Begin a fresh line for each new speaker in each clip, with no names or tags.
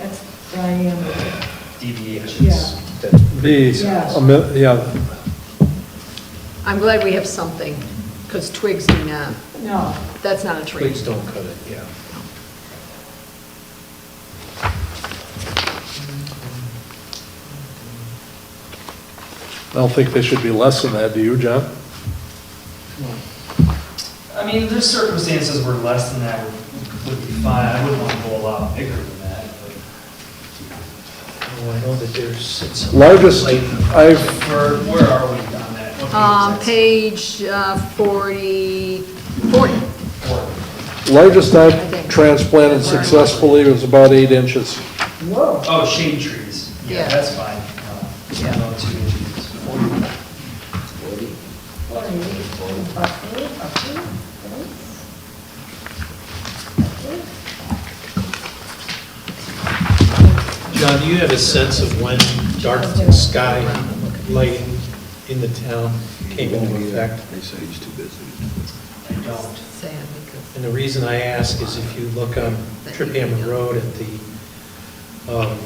I am.
deviations.
These,
Yes.
a mil- yeah,
I'm glad we have something, because twigs do not,
No,
that's not a tree.
Please don't cut it, yeah.
I don't think they should be less than that, do you, John?
I mean, there's circumstances where less than that would- would be fine, I wouldn't want to go a lot bigger than that, but.
Oh, I know that there's. it's-
Largest
like,
I've,
Where, where are we on that? What page is
Um,
that?
page uh, 40, 40,
Four.
largest I've transplanted successfully was about eight inches.
whoa,
Oh, shade trees, yeah,
Yeah.
that's fine. Uh,
Yeah.
No, two inches.
what are you, buckwheat, buckwheat, thanks.
John, do you have a sense of when dark sky lighting in the town came into effect?
They say he's too busy.
I don't.
sad, because
And the reason I ask is if you look on Trip Hammond Road at the um,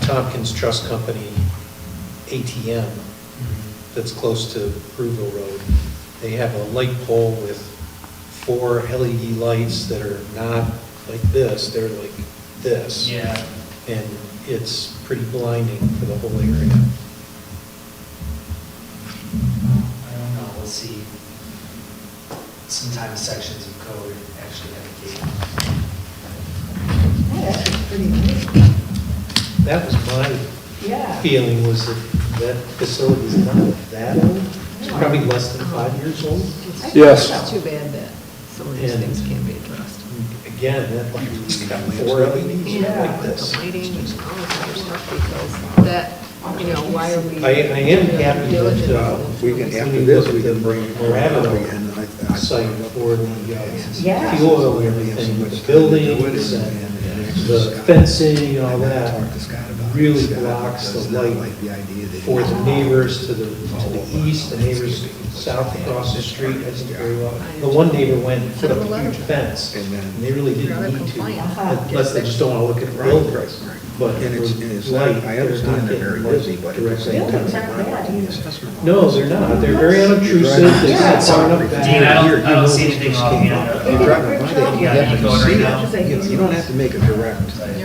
Tompkins Trust Company ATM that's close to Brewville Road, they have a light pole with four LED lights that are not like this, they're like this.
Yeah,
And it's pretty blinding for the whole area.
I don't know, we'll see. Sometimes sections of code actually have a gate.
That actually's pretty neat,
That was my
yeah.
feeling, was that that facility's not that old. It's probably less than five years old.
it's-
Yes.
It's too bad that some of these
And-
things can't be addressed.
Again, that like, it's got four LEDs like this.
The lighting and all of that stuff, because that, you know, why are we...
I, I am happy that, uh,
We can,
when
after
you
this,
look
we
at the
can bring Rabbit
Rabbit
in. I- I-
site for the
Yeah.
uh, fuel and everything, with the buildings and the fencing and all
Talk to
that,
Scott about it.
really
Scott
blocks the
does not
light
like the idea that
for
he-
the neighbors to the, to the east, the neighbors south across the street, I didn't very well. The one neighbor went and put up a huge fence,
And then-
and they really didn't need to, unless they just don't wanna look at the
Right, right,
buildings.
right.
But
And it's, and it's
for
not,
light,
I
they're
understand
not
they're very
getting
busy, but
light
at the
directly.
same time,
Buildings
they're
aren't
not
bad
doing
either.
this.
No, they're not, they're very unobtrusive, they
Yeah.
sit far enough back.
Dean, I
Here,
don't, I
you
don't
know
see
this
anything
just
off
came
hand.
up.
of-
You drive by, they- you
Yeah, going
have to
right
see
now.
it. You- You don't have to make a direct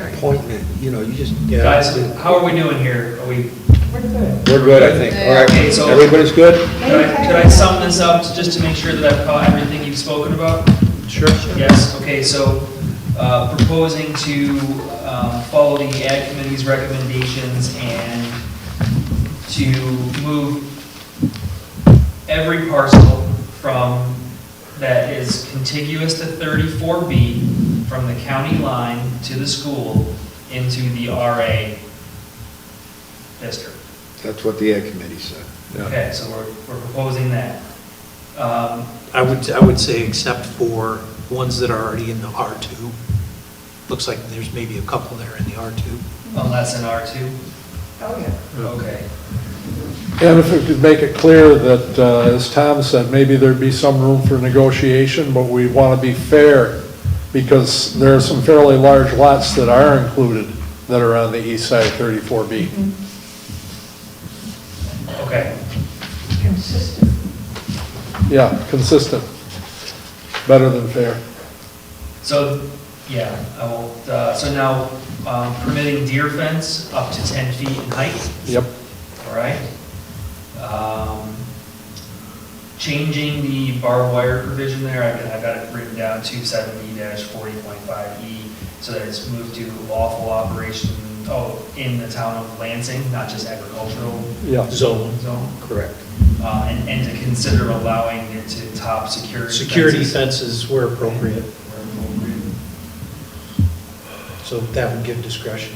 appointment, you know, you just.
Yeah.
Guys, how are we doing here? Are we,
We're good.
We're good, I think.
All right.
Okay, so-
Everybody's good?
could I, could I sum this up to- just to make sure that I've caught everything you've spoken about?
Sure.
Yes, okay, so uh, proposing to um, follow the ad committee's recommendations and to move every parcel from, that is contiguous to 34B from the county line to the school into the RA district.
That's what the ad committee said.
Okay, so we're, we're proposing that. Um,
I would, I would say except for ones that are already in the R2. Looks like there's maybe a couple there in the R2.
Unless in R2?
Oh, yeah.
Okay.
And if we could make it clear that, uh, as Tom said, maybe there'd be some room for negotiation, but we want to be fair, because there are some fairly large lots that are included that are on the east side of 34B.
Okay.
Consistent.
Yeah, consistent. Better than fair.
So, yeah, I won't, uh, so now um, permitting deer fence up to 10 feet in height,
Yep.
all right? Um, Changing the barbed wire provision there, I've got- I've got it written down, 270-40.5E, E, so that it's moved to lawful operation, oh, in the town of Lansing, not just agricultural
Yeah.
Zone.
zone,
Correct.
Uh, and and to consider allowing it to top security
Security
fences
fences where appropriate,
where appropriate.
so that would give discretion.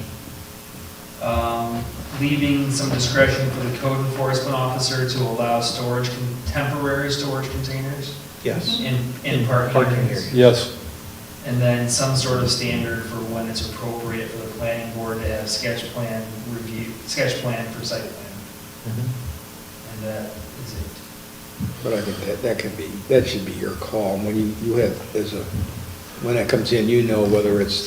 um, leaving some discretion for the code enforcement officer to allow storage, con- temporary storage containers
Yes.
in, in
In
parking
parking
areas.
Yes.
areas.
And then some sort of standard for when it's appropriate for the planning board to have sketch plan review, sketch plan for site plan.
嗯
And that is it.
But I think that, that can be, that should be your call. When you, you have, as a, when that comes in, you know whether it's